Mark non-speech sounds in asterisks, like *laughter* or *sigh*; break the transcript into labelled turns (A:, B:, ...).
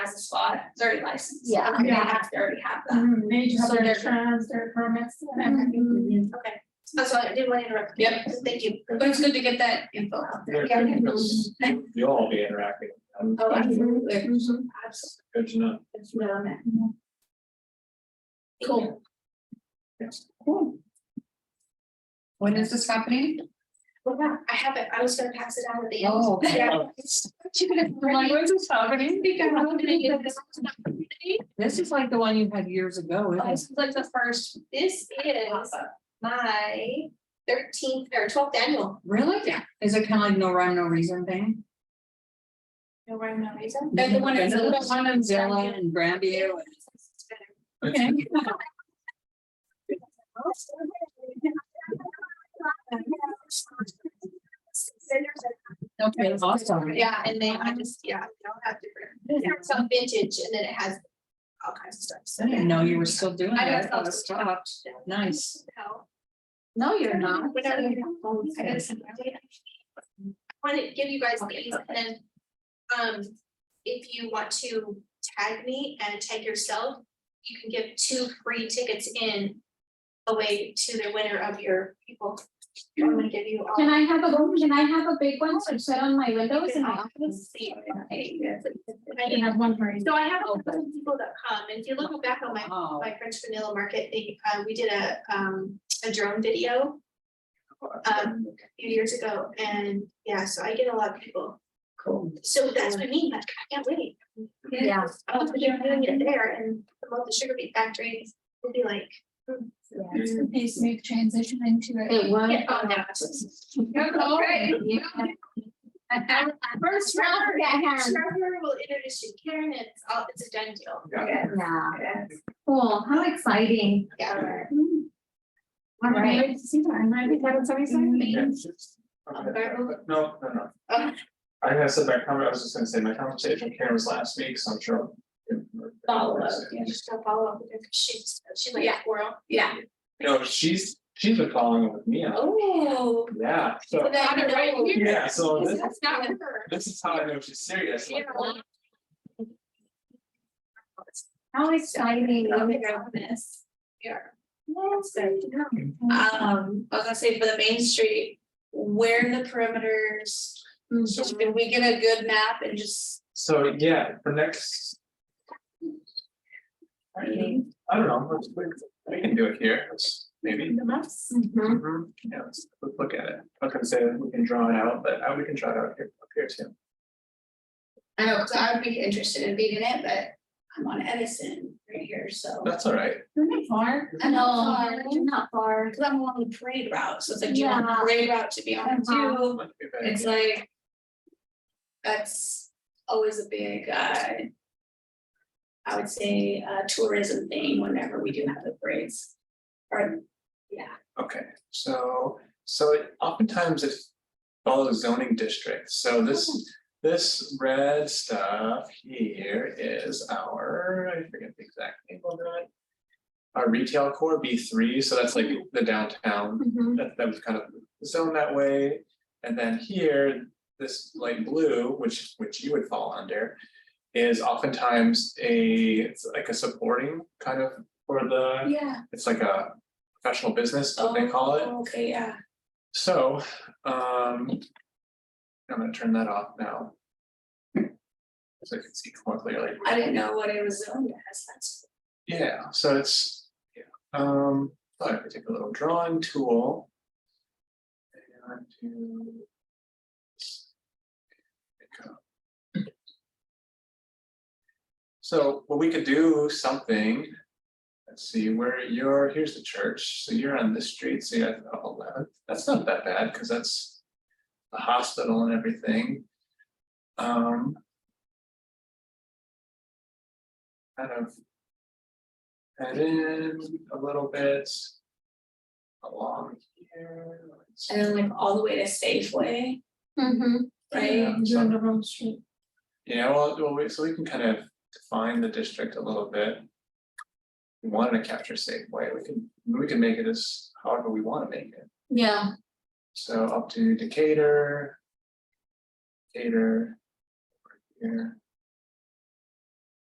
A: has a spot, it's already licensed.
B: Yeah.
A: They have to already have that.
C: They
A: So
C: have their
A: they're-
C: insurance, their permits, and everything.
B: Mhm.
A: Okay, so that's why I didn't want to interrupt. you.
D: Yep.
A: Thank you, but it's good to get that info out there.
B: Yeah, yeah.
D: Because You'll all be interacting. with
A: Oh,
D: them.
A: absolutely. Absolutely.
D: Good to know.
A: That's what I meant.
D: Cool. Yes.
E: When is this happening?
A: Well, yeah, I have it, I was gonna pass it out at the end.
E: Oh.
A: *laughs* Yeah.
E: This is like the one you had years ago, isn't it?
A: This is like the first, this is my thirteenth or twelfth annual,
E: Really? Yeah. Is it kind of like no rhyme, no reason thing?
A: no rhyme, no reason. They're the one that's.
E: Isn't it the one in Zilla and Grandview and-
D: Okay.
E: *laughs* Okay, awesome.
A: Yeah, and they, I just, yeah, they all have different, some vintage and then it has all kinds of stuff, so.
E: I didn't know you were still doing
A: I
E: that.
A: know.
E: I thought it stopped. Nice.
A: How-
E: No, you're not.
A: Whenever you- I gotta send that data. I Want to give you guys these and then, um, if you want to tag me and tag yourself, you can give two free tickets in away to the winner of your people. I'm gonna give you all.
C: Can I have a, can I have a big one to set on my windows in my office? I
A: So
C: can have one for you.
A: I have a couple of people that come, and if you look back on my
E: Oh,
A: my French Vanilla Market, they, uh, we did a, um, a drone video. Um, a few years ago, and yeah, so I get a lot of people,
E: cool.
A: so that's what I mean, like, I can't wait.
B: Yeah.
A: I want to be doing it there and promote the sugar beet factory, we'll be like.
C: A smooth transition into
B: It
C: it.
B: was.
A: get on that. Okay.
C: First round that hand.
A: Trevor will introduce you, Karen, it's all, it's a done deal.
D: Yeah.
B: Yeah, cool, how exciting.
A: Yeah.
B: All right.
C: Ready to see that, I'm ready to have somebody say.
D: Yeah, it's just- okay. No, no,
A: Oh.
D: no. I have said my comment, I was just gonna say, my conversation with Karen was last week, so I'm sure.
A: Follow up, yeah, just go follow up with her, 'cause she's, she's like a squirrel.
E: Yeah.
D: No, she's, she's been following up with me, on-
A: Oh.
D: yeah, so,
A: Then I know.
D: yeah, so Oh, this,
A: That's not her.
D: this is how I know she's serious, like,
B: How exciting.
A: Yeah.
B: this.
A: Yeah.
B: Yes, I know.
A: Um, I was gonna say for the Main Street, where the perimeters,
D: so
A: can we get a good map and just?
D: So, yeah, for next. I mean, I don't know, let's, we- we can do it here, let's maybe,
C: Mm-hmm.
B: Mhm.
D: Mhm, yeah, let's, let's look at it, I was gonna say that we can draw it out, but I, we can try it out here, up here too.
A: I know, cause I would be interested in being in it, but I'm on Edison right here, so.
D: That's all right,
A: I know,
B: Far, Not far.
A: cause I'm along the parade route, so it's like, do you want the
B: Yeah.
A: parade route to be on
B: Uh-huh.
A: too?
D: might be a bad
A: It's
D: idea.
A: like. That's always a big, uh. I would say, uh, tourism thing whenever we do have the parades. Or, yeah.
D: okay, so, so it- oftentimes it follows zoning districts, so this. This red stuff here is our, I forget the exact name of it. Our retail core B three, so that's like the downtown
C: Mm-hmm.
B: Mhm.
D: that that was kind of zoned that way. And then here, this light blue, which which you would fall under. Is oftentimes a, it's like a supporting kind of for the,
A: Yeah.
D: it's like a professional business, what they call it.
A: Oh, Okay, yeah.
D: So, um. I'm gonna turn that off now. So I can see more clearly.
A: I didn't know what it was zoned as, that's.
D: Yeah, so it's, yeah, um, thought I could take a little drawing tool. And do. pick up. So, well, we could do something. Let's see, where you're, here's the church, so you're on this street, so you have eleven, that's not that bad, because that's. The hospital and everything. Um. Kind of head in a little bit. Along here. let's-
A: And then like all the way to Safeway,
C: Mm-hmm.
B: Mhm.
A: right?
D: Yeah, so-
C: the wrong street.
D: Yeah, well, well, we- so we can kind of define the district a little bit. We wanted to capture Safeway, we can, we can make it as however we wanna make it,
B: Yeah,
D: so up to Decatur. Decatur. over Here.